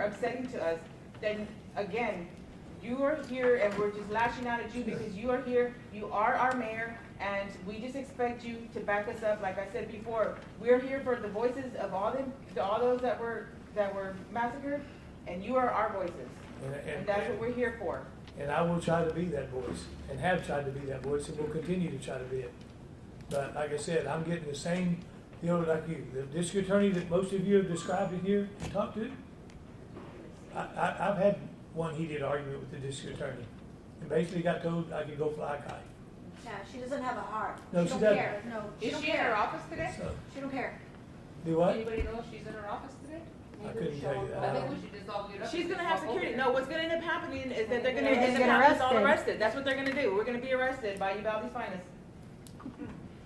upsetting to us, then again, you are here and we're just lashing out at you because you are here, you are our mayor, and we just expect you to back us up. Like I said before, we're here for the voices of all the, all those that were, that were massacred, and you are our voices. And- And And, that's what and, we're here for. and I will try to be that voice, and have tried to be that voice, and will continue to try to be it. But like I said, I'm getting the same deal like you. The district attorney that most of you have described in here and talked to, I, I, I've had one heated argument with the district attorney, and basically got told I could go fly a kite. Yeah, she doesn't have a heart. No, she she don't doesn't. care. No, she Is don't she in her care. office today? So, She don't care. do what? Anybody know if she's in her office today? I couldn't tell you I that. think we should just all get She's gonna have security. No, what's gonna end up happening is that they're gonna They're end gonna up get having us all arrested. arrested. That's what they're gonna do. We're gonna be arrested by Uvalde's finest.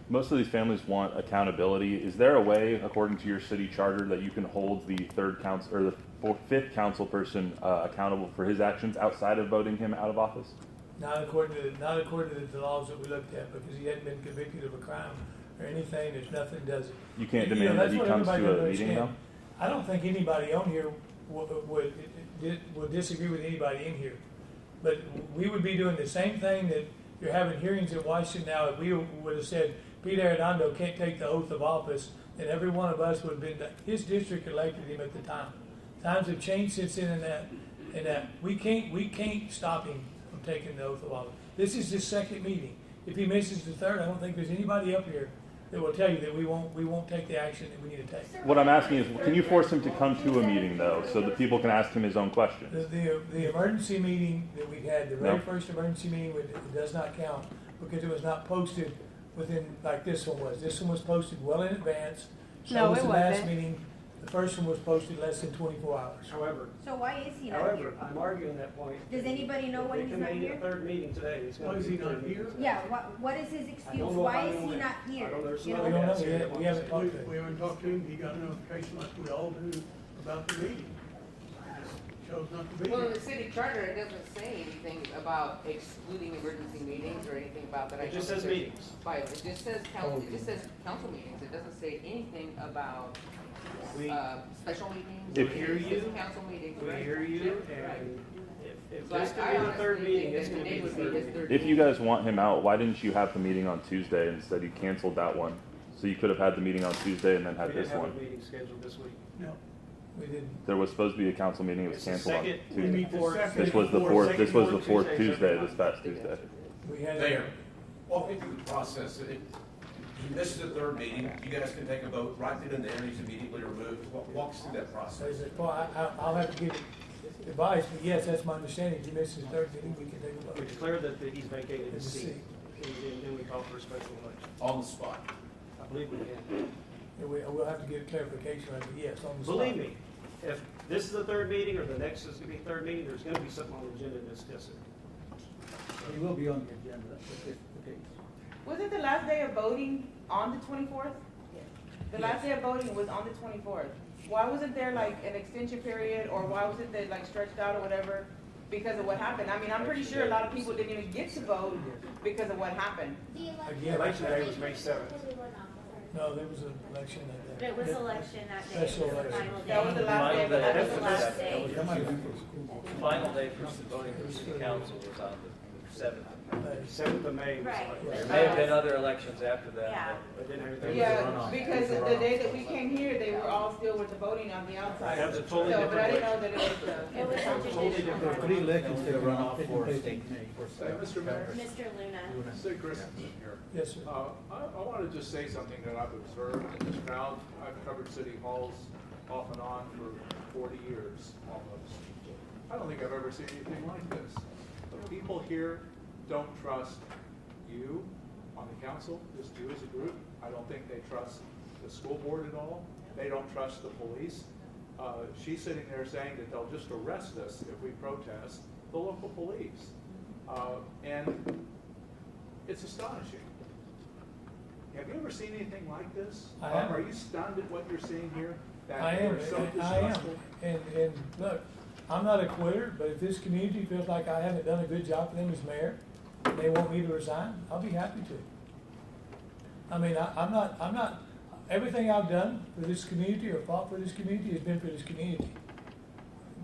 Most of these families want accountability. Is there a way, according to your city charter, that you can hold the third council or the fourth, fifth council person uh, accountable for his actions outside of voting him out of office? Not according to, not according to the laws that we looked at, because he hadn't been convicted of a crime or anything, there's nothing does it. You can't You know, demand that's that he what comes everybody to a doesn't meeting, though. understand. I don't think anybody on here would, would, would disagree with anybody in here. But we would be doing the same thing that you're having hearings in Washington now, if we would have said, Pete Arredondo can't take the oath of office, then every one of us would have been, his district elected him at the time. Times have changed since then and that, and that, we can't, we can't stop him from taking the oath of office. This is his second meeting. If he misses the third, I don't think there's anybody up here that will tell you that we won't, we won't take the action that we need to take. What I'm asking is, can you force him to come to a meeting, though, so that people can ask him his own The, questions? the, the emergency meeting that we had, the very No. first emergency meeting, would- it does not count because it was not posted within, like this one was. This one was posted well in advance. So No, was it the last wasn't. meeting. The first one was posted less than twenty-four hours. However, So why is he not however, here? I'm arguing that point. Does anybody know If when they he's come not in here? the third meeting today, it's gonna Why is be he the third not meeting here? today. Yeah, what, what is his excuse? know if I Why know is he it. not I here? don't know, You We somebody don't know, know, else we here haven't, that we haven't wants to say We, talked to we him. haven't talked to him, he got a notification like we all do about the meeting. He Chose not to be Well, in here. the city charter, it doesn't say anything about excluding emergency meetings or anything about that. I It just don't says think meetings. Oh. there's- By, it just says council, it just says council meetings, it doesn't say anything about, We, uh, special meetings. If- or Hear you. city Council meetings. we right? hear you, Right. and if, if So I- this could be the I third honestly meeting, think it's that gonna today be the would be third his meeting. third If you meeting. guys want him out, why didn't you have the meeting on Tuesday instead? You canceled that one. So you could have had the meeting on Tuesday and then We had didn't this have a one. meeting scheduled this week. No, We didn't, There was supposed to be a council meeting, it was It's the canceled on second- we Tuesday. meet the Fourth. second. This was the fourth- fourth, this was second the fourth Tuesdays every Tuesday, month. this past Tuesday. we had. Mayor, walk me through the process. It- This is the third meeting. You guys can take a vote right then and there. He's immediately removed. Wa- Walk us through that So he process. said, well, I, I- I'll have to give advice, but yes, that's my understanding. If he misses the third meeting, we can take a We vote. declare that that he's vacated His his seat, seat. and and then we call for a special election. On the spot. I believe we can. And we, we'll have to get clarification, on it, but yes, on the spot. Believe me, if this is the third meeting, or the next is gonna be the third meeting, there's gonna be something on the agenda to discuss it. He will be on the agenda, if that's the case. Wasn't the last day of voting on the twenty-fourth? The last day of voting was on the twenty-fourth. Why wasn't there like an extension period, or why wasn't it like stretched out or whatever because of what happened? I mean, I'm pretty sure a lot of people didn't even get to vote because of what happened. Again, Election day was May seventh. no, there was an election that day. It was election that day, it was Special the election. final That was the day. last day, but that was the last day. day. That might be for school board. Final day for voting for city council was on the seventh. But Seventh of May was Right. like- Right. There may have been other elections after Yeah. that. But then everything was Yeah, runoff. because the day that we came here, they were all still with the voting on the outside. That was a totally So, but I didn't different know that it was It the. was a traditional There are three one. elections that run off for for state. state. Mr. Mayor? Mr. Luna. Say, Chris, Yes, sir. Uh, I, I want to just say something that I've observed in this crowd. I've covered city halls off and on for forty years almost. I don't think I've ever seen anything like this. The people here don't trust you on the council, just you as a group. I don't think they trust the school board at all. They don't trust the police. Uh, she's sitting there saying that they'll just arrest us if we protest, the local police. Uh, and it's astonishing. Have you ever seen anything like this? I have. Are you stunned at what you're seeing here? That I am, you're so I- I am. distrustful? And, and look, I'm not a quitter, but if this community feels like I haven't done a good job for them as mayor, and they want me to resign, I'll be happy to. I mean, I, I'm not, I'm not, everything I've done for this community or fought for this community has been for this community.